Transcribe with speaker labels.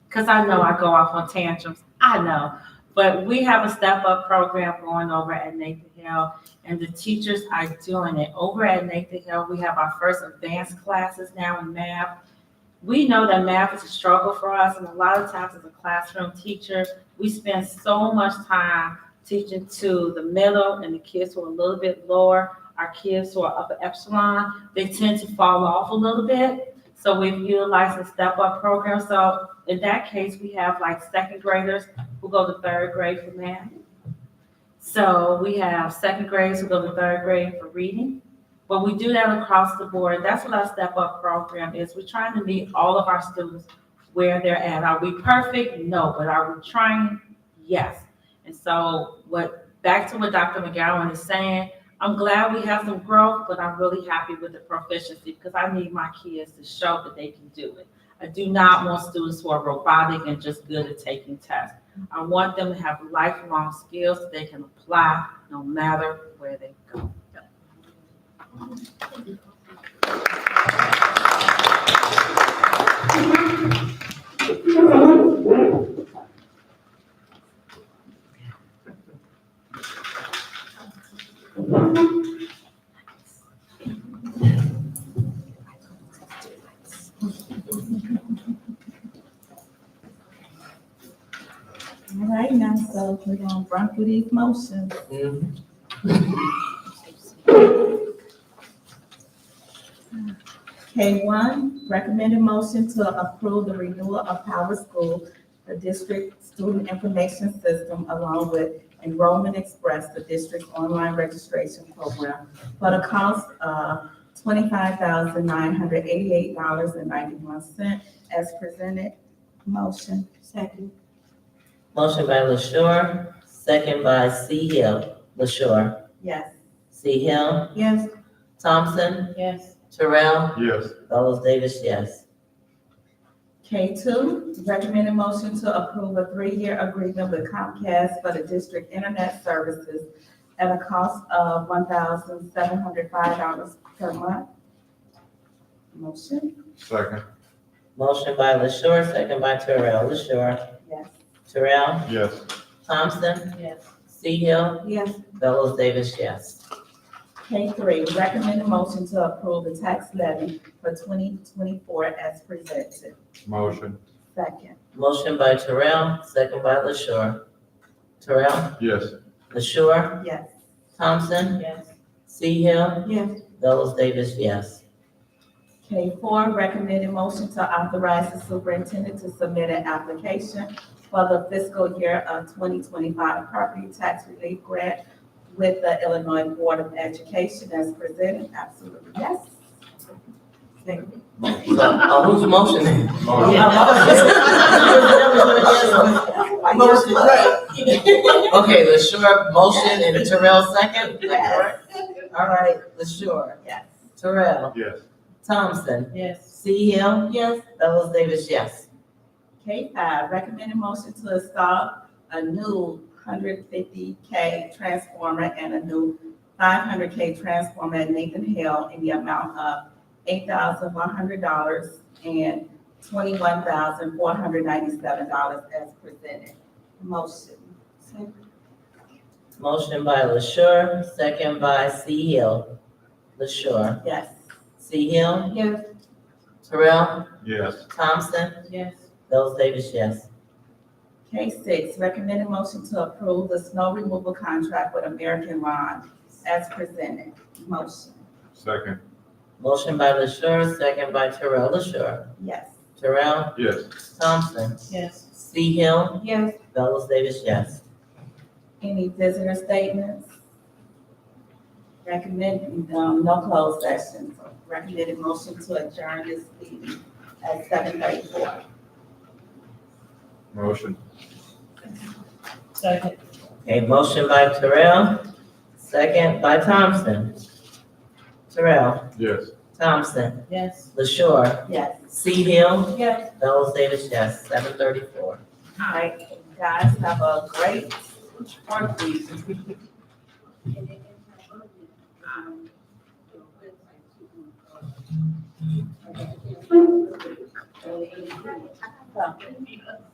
Speaker 1: because I know I go off on tantrums. I know. But we have a step up program going over at Nathan Hill, and the teachers are doing it. Over at Nathan Hill, we have our first advanced classes now in math. We know that math is a struggle for us, and a lot of times as a classroom teacher, we spend so much time teaching to the middle and the kids who are a little bit lower. Our kids who are upper epsilon, they tend to fall off a little bit. So we've utilized a step up program. So in that case, we have like second graders who go to third grade for math. So we have second graders who go to third grade for reading. But we do that across the board. That's what our step up program is. We're trying to meet all of our students where they're at. Are we perfect? No, but are we trying? Yes. And so what, back to what Dr. McGowan is saying, I'm glad we have some growth, but I'm really happy with the proficiency because I need my kids to show that they can do it. I do not want students who are robotic and just good at taking tests. I want them to have lifelong skills that they can apply no matter where they go.
Speaker 2: All right, now, so we're gonna run through these motions. K one, recommended motion to approve the renewal of Power School, the district student information system, along with Enrollment Express, the district's online registration program, for the cost of twenty-five thousand nine hundred eighty-eight dollars and ninety-one cent, as presented. Motion. Second.
Speaker 3: Motion by LaShaw, second by C Hill. LaShaw,
Speaker 2: Yes.
Speaker 3: C Hill,
Speaker 2: Yes.
Speaker 3: Thompson,
Speaker 2: Yes.
Speaker 3: Terrell,
Speaker 4: Yes.
Speaker 3: Fellows Davis, yes.
Speaker 2: K two, recommended motion to approve a three-year agreement with Comcast for the district internet services at a cost of one thousand seven hundred five dollars per month. Motion?
Speaker 4: Second.
Speaker 3: Motion by LaShaw, second by Terrell. LaShaw,
Speaker 2: Yes.
Speaker 3: Terrell,
Speaker 4: Yes.
Speaker 3: Thompson,
Speaker 2: Yes.
Speaker 3: C Hill,
Speaker 2: Yes.
Speaker 3: Fellows Davis, yes.
Speaker 2: K three, recommended motion to approve the tax levy for twenty twenty-four as presented.
Speaker 4: Motion.
Speaker 2: Second.
Speaker 3: Motion by Terrell, second by LaShaw. Terrell,
Speaker 4: Yes.
Speaker 3: LaShaw,
Speaker 2: Yes.
Speaker 3: Thompson,
Speaker 2: Yes.
Speaker 3: C Hill,
Speaker 2: Yes.
Speaker 3: Fellows Davis, yes.
Speaker 2: K four, recommended motion to authorize the superintendent to submit an application for the fiscal year of twenty twenty-five property tax relief grant with the Illinois Board of Education as presented. Absolutely, yes. Second.
Speaker 3: So, uh, who's motioning?
Speaker 4: Motion.
Speaker 3: Motion, right. Okay, LaShaw, motion, and Terrell second, is that correct? All right, LaShaw,
Speaker 2: Yes.
Speaker 3: Terrell,
Speaker 4: Yes.
Speaker 3: Thompson,
Speaker 2: Yes.
Speaker 3: C Hill,
Speaker 2: Yes.
Speaker 3: Fellows Davis, yes.
Speaker 2: K five, recommended motion to install a new hundred fifty K transformer and a new five hundred K transformer at Nathan Hill in the amount of eight thousand one hundred dollars and twenty-one thousand four hundred ninety-seven dollars as presented. Motion.
Speaker 3: Motion by LaShaw, second by C Hill. LaShaw,
Speaker 2: Yes.
Speaker 3: C Hill,
Speaker 2: Yes.
Speaker 3: Terrell,
Speaker 4: Yes.
Speaker 3: Thompson,
Speaker 2: Yes.
Speaker 3: Fellows Davis, yes.
Speaker 2: K six, recommended motion to approve the snow removal contract with American Lawn as presented. Motion.
Speaker 4: Second.
Speaker 3: Motion by LaShaw, second by Terrell LaShaw.
Speaker 2: Yes.
Speaker 3: Terrell,
Speaker 4: Yes.
Speaker 3: Thompson,
Speaker 2: Yes.
Speaker 3: C Hill,
Speaker 2: Yes.
Speaker 3: Fellows Davis, yes.
Speaker 2: Any visitor statements? Recommend, um, no closed sessions. Recommended motion to adjourn this meeting at seven thirty-four.
Speaker 4: Motion.
Speaker 2: Second.
Speaker 3: Okay, motion by Terrell, second by Thompson. Terrell,
Speaker 4: Yes.
Speaker 3: Thompson,
Speaker 2: Yes.
Speaker 3: LaShaw,
Speaker 2: Yes.
Speaker 3: C Hill,
Speaker 2: Yes.
Speaker 3: Fellows Davis, yes, seven thirty-four.
Speaker 2: All right, guys, have a great fourth week.
Speaker 1: So.